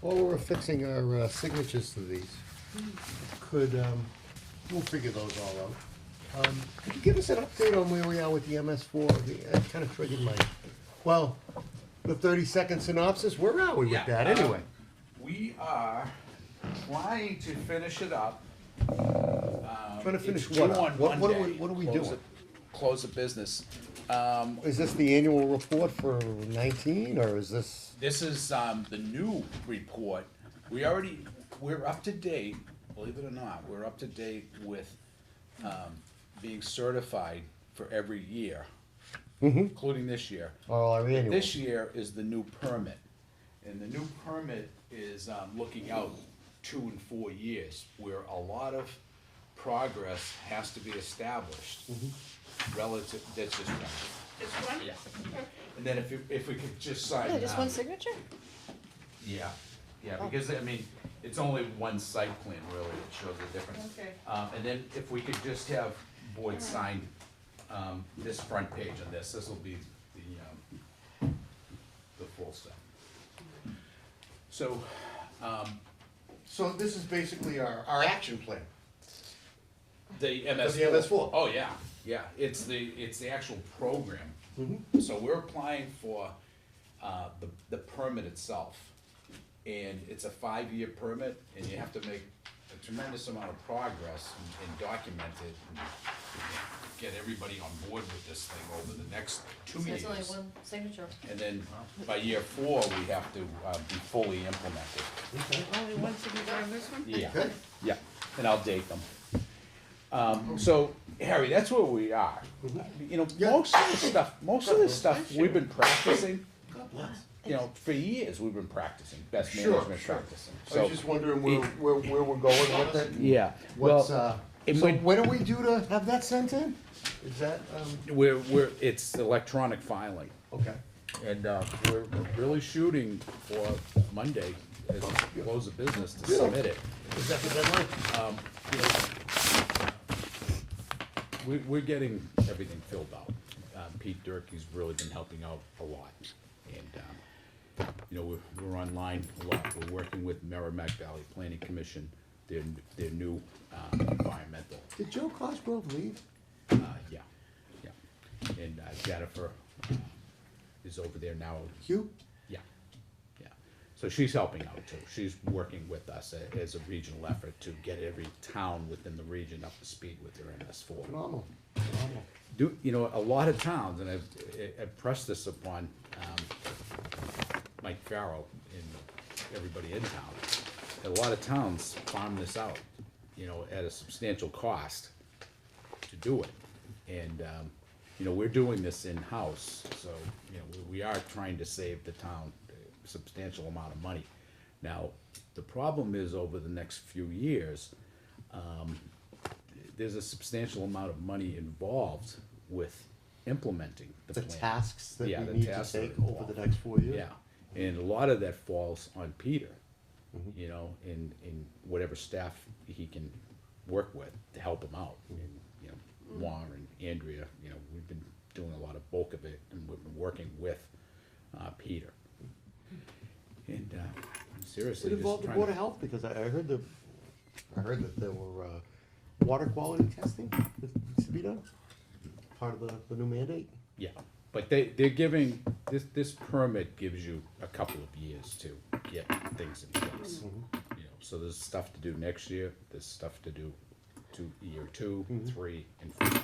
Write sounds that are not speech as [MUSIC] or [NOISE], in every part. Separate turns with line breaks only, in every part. While we're fixing our uh, signatures to these, could, um, we'll figure those all out. Um, Could you give us an update on where we are with the MS four? That kind of triggered my, well, the thirty-second synopsis, where are we with
Yeah,
that
um,
anyway?
We are trying to finish it up.
Trying to finish
um, It's
what
due
up?
on
What, what are we,
Monday.
what are we
Close
doing?
the- Close the business. Um,
Is this the annual report for nineteen, or is this,
this is, um, the new report. We already, we're up to date, believe it or not, we're up to date with, um, being certified for every year,
Mm-hmm.
including this year.
or our annual?
This year is the new permit, and the new permit is, um, looking out two and four years, where a lot of progress has to be established relative, that's just,
Just one?
yeah. And then if, you- if we could just sign
Yeah, just one
now.
signature?
Yeah, yeah, because, I mean, it's only one site plan really that shows the difference.
Okay.
Um, and then if we could just have Boyd sign, um, this front page on this, this will be the, um, the full stuff. So, um,
So this is basically our, our action plan.
the MS.
The MS4.
Oh, yeah, yeah, it's the, it's the actual program. So we're applying for, uh, the, the permit itself. And it's a five-year permit, and you have to make a tremendous amount of progress and- and document it. and Get everybody on board with this thing over the next two
There's
years.
only one signature.
And then by year four, we have to, uh, be fully implemented.
Only one signature on this one?
Yeah.
Okay.
Yeah, and I'll date them. Um, so, Harry, that's where we are. You know,
Mm-hmm. Yeah.
most of this stuff, most of this stuff, we've been practicing,
God bless.
you know, for years, we've been practicing, best
Sure,
management
sure.
practicing,
I
so.
was just wondering where, where, where we're going with it. and
Yeah,
What's,
well,
uh,
it
so
might-
what do we do to have that sent in? Is that, um,
We're, we're, it's electronic filing,
okay.
and, uh, we're really shooting for Monday, as close of business to submit it. Um,
Is that the deadline?
We, we're getting everything filled out. Um, Pete Durkee's really been helping out a lot. And, um, you know, we're, we're online a lot. We're working with Merrimack Valley Planning Commission, their, their new, um, environmental,
Did Joe Cosgrove leave?
uh, yeah, yeah. And uh, Jennifer uh, is over there now.
Hugh?
Yeah, yeah. So she's helping out too. She's working with us a- as a regional effort to get every town within the region up to speed with their MS four
Phenomenal, phenomenal.
do, you know, a lot of towns, and I've, I- I've pressed this upon, um, Mike Farrell and everybody in town. A lot of towns farm this out, you know, at a substantial cost to do it. And, um, you know, we're doing this in-house, so, you know, we- we are trying to save the town a substantial amount of money. Now, the problem is over the next few years, um, there's a substantial amount of money involved with implementing the
The
plan.
tasks that
Yeah,
we
the
need to
tasks that
take
are
over the next four years?
Yeah, and a lot of that falls on Peter,
Mm-hmm.
you know, in, in whatever staff he can work with to help him out.
Mm-hmm.
And, you know, Warren, Andrea, you know, we've been doing a lot of bulk of it, and we've been working with, uh, Peter. And, uh, seriously,
It
just
involved the
trying
Board of
to,
Health, because I, I heard the, I heard that there were, uh, water quality testing that needs to be done, part of the, the new mandate.
yeah, but they, they're giving, this, this permit gives you a couple of years to get things in place.
Mm-hmm.
you know, so there's stuff to do next year, there's stuff to do to year two,
Mm-hmm.
three, and four.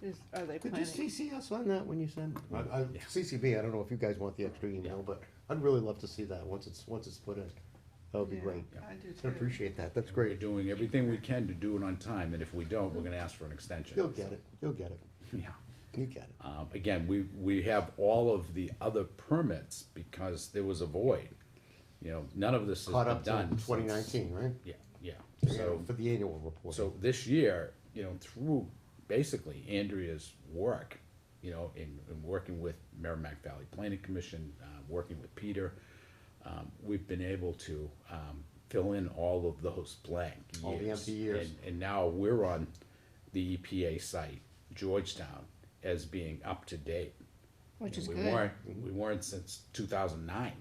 Is, are they
Could you
planning?
CC us on that when you send? I, I,
Yeah.
CCB, I don't know if you guys want the extra email, but I'd really love to see that once it's, once it's put in. That would be
Yeah,
great.
I do
I
too.
appreciate that, that's
We're
great.
doing everything we can to do it on time, and if we don't, we're gonna ask for an extension.
You'll get it, you'll get it,
[LAUGHS] Yeah.
you get it.
Um, again, we, we have all of the other permits because there was a void. You know, none of this has
Caught
been
up
done.
to
since-
twenty nineteen, right?
Yeah, yeah,
Yeah,
so,
For the annual report.
so this year, you know, through basically Andrea's work, you know, in, in working with Merrimack Valley Planning Commission, uh, working with Peter, um, we've been able to, um, fill in all of those blank years.
All the empty years.
And, and now we're on the EPA site, Georgetown, as being up to date.
Which
And
is
we
good.
Mm-hmm.
weren't- We weren't since two thousand nine.